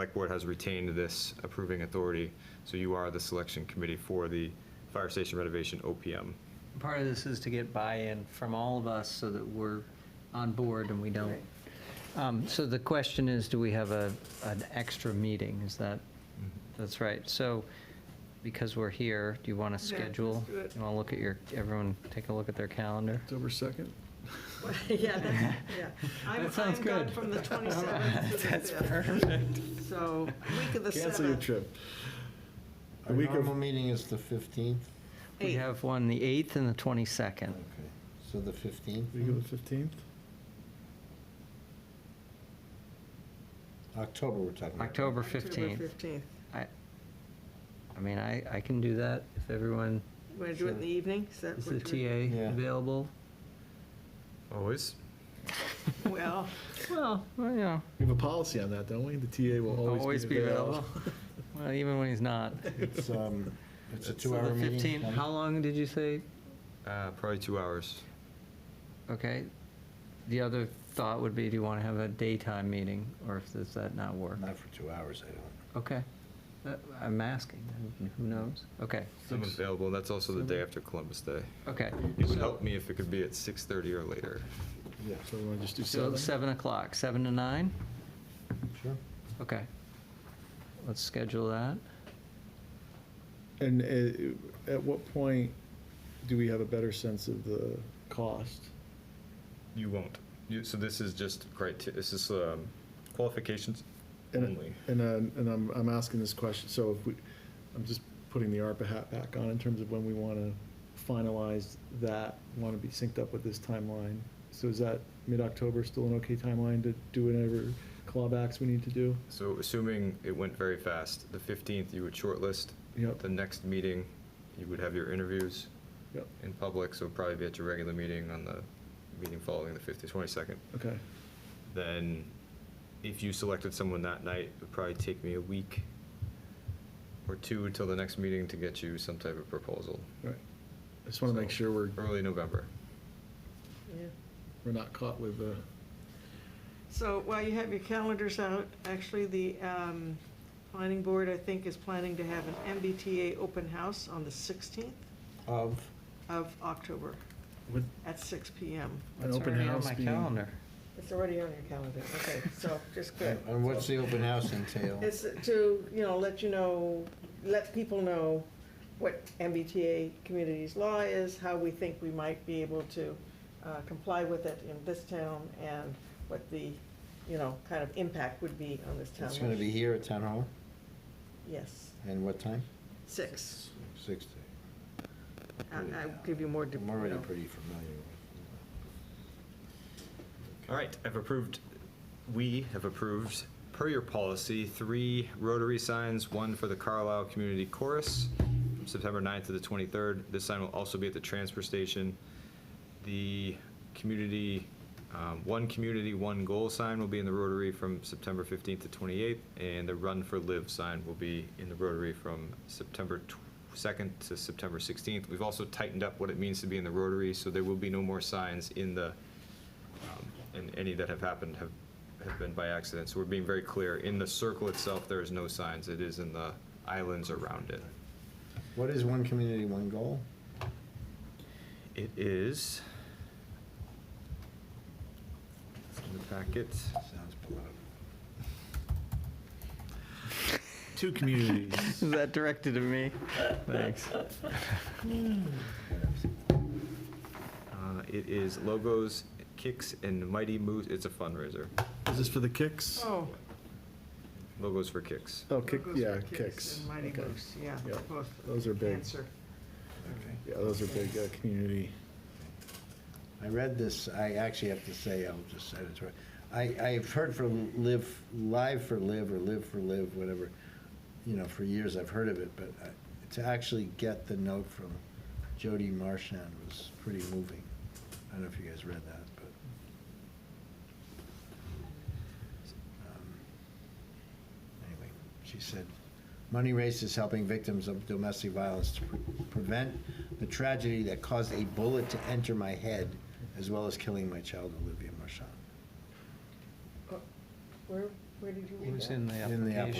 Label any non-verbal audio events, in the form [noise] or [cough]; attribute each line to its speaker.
Speaker 1: Select Board has retained this approving authority, so you are the selection committee for the fire station renovation OPM.
Speaker 2: Part of this is to get buy-in from all of us so that we're on board and we don't. Um, So the question is, do we have a, an extra meeting? Is that,
Speaker 3: Mm-hmm.
Speaker 2: that's right. So because we're here, do you want to
Speaker 4: Yeah, let's
Speaker 2: schedule?
Speaker 4: do it.
Speaker 2: You want to look at your, everyone take a look at their calendar? [laughs]
Speaker 3: October 2nd?
Speaker 4: [laughs] Yeah, that's, yeah. I'm-
Speaker 2: That sounds
Speaker 4: I'm
Speaker 2: good. [laughs]
Speaker 4: gone from the 27th to the [laughs] 5th.
Speaker 2: perfect.
Speaker 4: So week of the 7th.
Speaker 3: Cancel your trip. The
Speaker 5: Our
Speaker 3: week
Speaker 5: normal
Speaker 3: of,
Speaker 5: meeting is the 15th.
Speaker 2: We
Speaker 4: Eight.
Speaker 2: have one, the 8th and the 22nd.
Speaker 5: Okay, so the 15th,
Speaker 3: week of the 15th?
Speaker 5: October we're talking about.
Speaker 2: October
Speaker 4: October
Speaker 2: 15th.
Speaker 4: 15th.
Speaker 2: I, I mean, I, I can do that if everyone,
Speaker 4: You want to do it in the evening? Is that
Speaker 2: is
Speaker 4: what
Speaker 2: the
Speaker 4: you-
Speaker 5: Yeah.
Speaker 2: TA available?
Speaker 1: Always?
Speaker 4: Well,
Speaker 2: Well, well, yeah.
Speaker 3: We have a policy on that, don't we? The TA will always be available.
Speaker 2: Well, even when he's not.
Speaker 5: It's, [laughs] um, it's a
Speaker 2: So the
Speaker 5: two-hour meeting.
Speaker 2: 15, how long did you say?
Speaker 1: Uh, Probably two hours.
Speaker 2: Okay. The other thought would be, do you want to have a daytime meeting, or if does that not work?
Speaker 5: Not for two hours, I don't.
Speaker 2: Okay. Uh, I'm asking, who- who knows? Okay,
Speaker 1: I'm available, and that's also the day after Columbus Day.
Speaker 2: okay.
Speaker 1: It would
Speaker 2: So-
Speaker 1: help me if it could be at 6:30 or later.
Speaker 5: Yeah,
Speaker 3: [laughs] So we want to just do
Speaker 2: So
Speaker 3: 7?
Speaker 2: 7 o'clock, 7 to 9?
Speaker 5: sure.
Speaker 2: Okay. Let's schedule that.
Speaker 3: And uh, at what point do we have a better sense of the cost?
Speaker 1: You won't. You- So this is just criteria, this is um, qualifications
Speaker 3: And-
Speaker 1: only.
Speaker 3: And, um, and I'm, I'm asking this question, so if we, I'm just putting the ARPA hat back on in terms of when we want to finalize that, want to be synced up with this timeline. So is that mid-October still an okay timeline to do whatever clawbacks we need to do?
Speaker 1: So assuming it went very fast, the 15th, you would shortlist.
Speaker 3: Yep.
Speaker 1: The next meeting, you would have your interviews
Speaker 3: Yep,
Speaker 1: in public, so it'd probably be at your regular meeting on the meeting following the 15th, 22nd.
Speaker 3: okay.
Speaker 1: Then if you selected someone that night, it would probably take me a week or two till the next meeting to get you some type of proposal.
Speaker 3: Right. I just want to make
Speaker 1: So,
Speaker 3: sure we're,
Speaker 1: Early November.
Speaker 4: yeah.
Speaker 3: we're not caught with uh, the,
Speaker 4: So while you have your calendars out, actually, the um, planning board, I think, is planning to have an MBTA open house on the 16th
Speaker 5: Of,
Speaker 4: of October
Speaker 3: with
Speaker 4: at 6 PM.
Speaker 3: an
Speaker 2: That's
Speaker 3: open
Speaker 2: already on
Speaker 3: house
Speaker 2: my
Speaker 3: being.
Speaker 2: calendar.
Speaker 4: It's already on your calendar, okay, so just good.
Speaker 5: and what's the open house entail?
Speaker 4: It's to, you know, let you know, let people know what MBTA communities law is, how we think we might be able to uh, comply with it in this town, and what the, you know, kind of impact would be on this town.
Speaker 5: It's gonna be here at Town Hall,
Speaker 4: Yes,
Speaker 5: and what time?
Speaker 4: six.
Speaker 5: Six.
Speaker 4: I- I'll give you more. de-
Speaker 5: I'm already
Speaker 4: you know.
Speaker 5: pretty familiar with
Speaker 1: All right, I've approved, we have approved, per your policy, three Rotary signs, one for the Carlisle Community Chorus, from September 9th to the 23rd. This sign will also be at the transfer station. The community, um, one community, one goal sign will be in the Rotary from September 15th to 28th, and the Run for Live sign will be in the Rotary from September 2nd to September 16th. We've also tightened up what it means to be in the Rotary, so there will be no more signs in the um, and any that have happened have, have been by accident. So we're being very clear, in the circle itself, there is no signs, it is in the islands around it.
Speaker 5: What is one community, one goal?
Speaker 1: It is it's in the packet.
Speaker 5: Sounds political.
Speaker 3: Two
Speaker 2: [laughs]
Speaker 3: communities.
Speaker 2: Is that directed at me? Thanks.
Speaker 1: Uh, It is logos, kicks, and mighty moves, it's a fundraiser.
Speaker 3: Is this for the kicks?
Speaker 4: Oh.
Speaker 1: Logos for kicks.
Speaker 3: Oh, kick,
Speaker 4: Logos for
Speaker 3: yeah, kicks.
Speaker 4: And Mighty
Speaker 3: Okay.
Speaker 4: Moose, yeah,
Speaker 3: Yeah,
Speaker 4: both.
Speaker 3: those are big.
Speaker 4: Cancer.
Speaker 5: Okay.
Speaker 3: Yeah, those are big, uh, community.
Speaker 5: I read this, I actually have to say, I'll just say it's right. I, I've heard for live, live for live, or live for live, whatever, you know, for years I've heard of it, but uh, to actually get the note from Jody Marchand was pretty moving. I don't know if you guys read that, but. um, Anyway, she said, Money Race is helping victims of domestic violence to pre- prevent the tragedy that caused a bullet to enter my head, as well as killing my child, Olivia Marchand.
Speaker 4: Oh, Where, where Where did you read
Speaker 2: It was
Speaker 4: that?
Speaker 2: in the
Speaker 5: In the
Speaker 2: application.